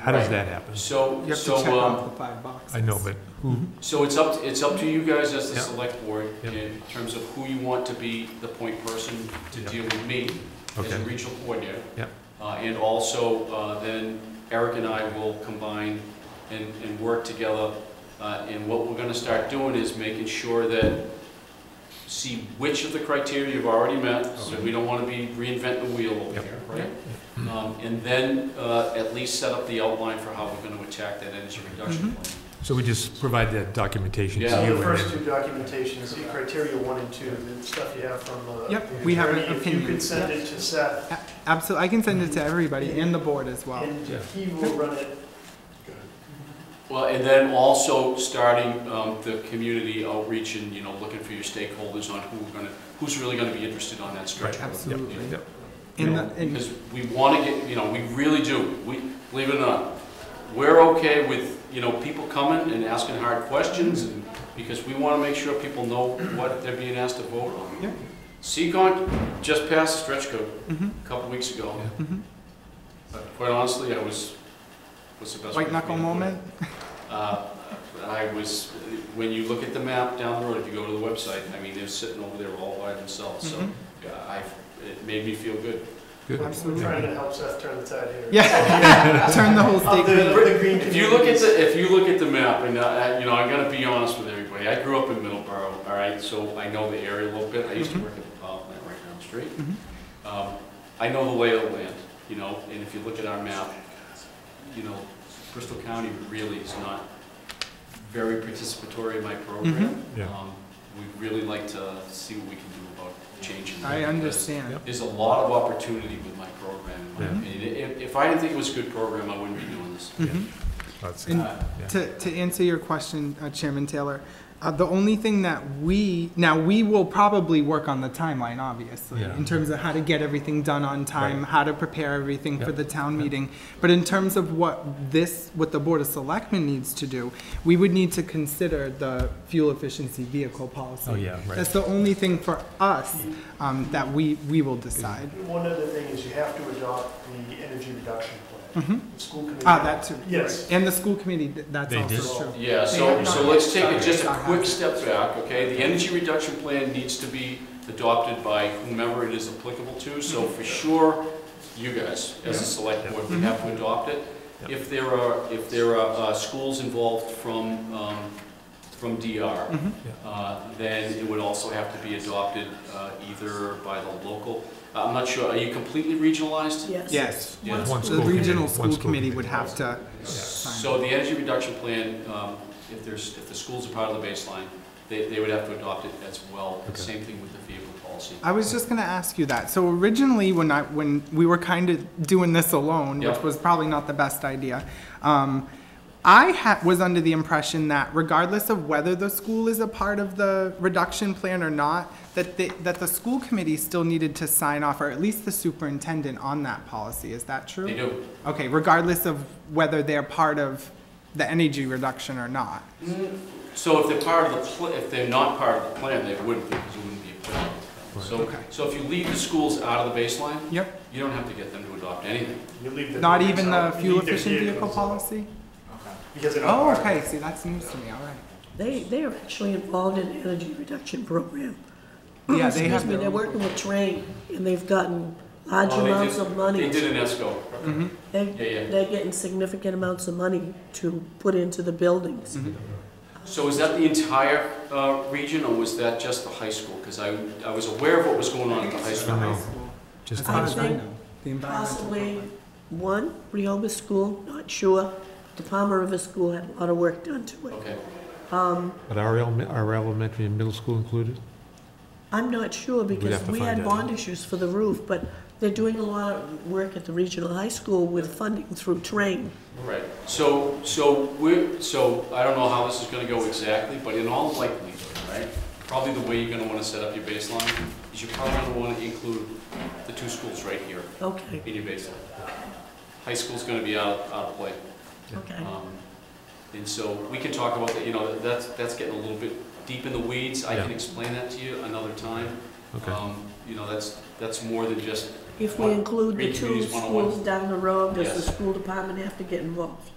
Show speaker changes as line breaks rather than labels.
How does
Right.
that happen?
So,
You have to
so,
check
um,
off the five boxes.
I know, but who,
so it's up, it's up to you guys as the
Yeah.
select board
Yeah.
in terms of who you want to be the point person to
Yeah.
deal with me as a
okay,
regional coordinator.
Yeah.
Uh, and also, uh, then Eric and I will combine and, and work together. Uh, and what we're gonna start doing is making sure that, see which of the criteria you've already met, so
Okay.
we don't wanna be reinventing the wheel over
Yep.
here, right? Um, and then, uh, at least set up the outline for how we're gonna attack that energy reduction plan.
so we just provide that documentation to you?
Yeah.
So
and
the first two
then-
documentations, the criteria one and two, the stuff you have from the.
Yep,
the
we have an
attorney, If you
opinion.
could send it to Seth,
Absolutely, I can send it to everybody and the board as well.
and
Yeah.
he will run it.
Well, and then also starting um, the community outreach and, you know, looking for your stakeholders on who are gonna, who's really gonna be interested on that
Right.
stretch. of road.
Absolutely.
Yeah,
And, the-
Yeah.
and
Because we wanna get, you know, we really do, we, believe it or not, we're okay with, you know, people coming and asking hard questions, and- because we wanna make sure people know what they're being asked to vote on.
Yeah.
Seacon just passed stretch code
Mhm.
a couple weeks ago.
Yeah.
Mhm.
But Quite honestly, I was, what's the best? way for me
white
to
knuckle
put it?
moment,
Uh, I was, when you look at the map down the road, if you go to the website, I mean, they're sitting over there all by themselves, so
Mhm.
yeah, I, it made me feel good.
good.
We're
absolutely.
trying to help Seth turn the tide here.
Yeah, turn the whole
Of the,
state.
of the green.
If you look at the, if you look at the map, and uh, I, I- you know, I gotta be honest with everybody, I grew up in Middleborough, all right, so I know the area a little bit, I used to work at the power plant right down the street.
Mhm.
Um, I know the lay of the land, you know, and if you look at our map, you know, Bristol County really is not very participatory in my program.
Mm-hmm. Yeah.
Um, We'd really like to see what we can do about changing. that,
I
because
understand.
Yep.
There's a lot of opportunity with my program, in my
Yeah.
opinion. If, if I didn't think it was a good program, I wouldn't be doing this.
Mhm.
That's-
And-
Uh,
To, to answer your question, uh, Chairman Taylor, uh, the only thing that we, now, we will probably work on the timeline, obviously,
Yeah.
in terms of how to get everything done on time,
Right.
how to prepare everything for
Yep.
the town
Yep.
meeting. But in terms of what this, what the Board of Selectmen needs to do, we would need to consider the fuel efficiency vehicle policy.
Oh, yeah, right.
That's the only thing for us, um, that we, we will decide.
One other thing is you have to adopt the energy reduction plan.
Mhm.
The School committee.
Ah, that too.
Yes.
right. And the school committee, th- that's
They did?
also true.
Yeah,
They
so,
have
so
not-
let's take it just a
Sorry.
quick step back, okay? The energy reduction plan needs to be adopted by whomever it is applicable to, so
Mhm.
for sure, you guys, as a select board, we have to adopt it.
Yep.
If there are, if there are uh, schools involved from, um, from DR,
Mhm.
uh, then it would also have to be adopted uh, either by the local, I'm not sure, are you completely regionalized?
Yes.
Yes.
Yeah.
One
The
school committee,
regional
one
school
school
committee
committee.
would have to,
So the energy reduction plan, um, if there's, if the schools are part of the baseline, they, they would have to adopt it as well.
Okay.
Same thing with the vehicle policy.
I was just gonna ask you that. So originally, when I, when we were kind of doing this alone, which
Yeah.
was probably not the best idea, um, I ha- was under the impression that regardless of whether the school is a part of the reduction plan or not, that the, that the school committee still needed to sign off, or at least the superintendent on that policy. Is that true?
They do.
Okay, regardless of whether they're part of the energy reduction or not.
So if they're part of the, pl- if they're not part of the plan, they wouldn't be, because it wouldn't be applicable. to them.
Okay.
So, so if you leave the schools out of the baseline,
Yep.
you don't have to get them to adopt anything.
You leave the
Not
vehicles
even
out.
the
You
fuel
leave their
efficient vehicle
vehicles out,
policy?
Because they're not.
Oh,
part of it.
okay, see, that's news to me, all right.
They, they are actually involved in energy reduction program.
Yeah, they have
Excuse me,
their
they're
own
working with Train, and they've gotten large
Oh, they did-
amounts of
They
money.
did an ESCO.
They-
Yeah, yeah.
They're getting significant amounts of money to put into the buildings.
Mm-hmm.
So is that the entire uh, region, or was that just the high school? Because I, I was aware of what was going on at the high school.
No,
high
no,
school.
just-
As far as I
Honestly,
know, the environmental
Possibly
program.
one, Rehoboth School, not sure. The Palmer River School had a lot of work done to it.
Okay.
But our, elem- our elementary and middle school included?
I'm not sure because
have to
we
find
had
out.
bond issues for the roof, but they're doing a lot of work at the regional high school with funding through Train.
Right, so, so we're, so I don't know how this is gonna go exactly, but in all likelihood, right? Probably the way you're gonna wanna set up your baseline is you're probably gonna wanna include the two schools right here
Okay,
in your baseline. High school's gonna be out, out of play.
okay.
Um, And so we can talk about that, you know, that's, that's getting a little bit deep in the weeds. I can
Yeah.
explain that to you another time.
Okay.
Um, You know, that's, that's more than just
If we include the
Read
two
Communities 101.
schools down the road, does the
Yes.
school department have to get involved?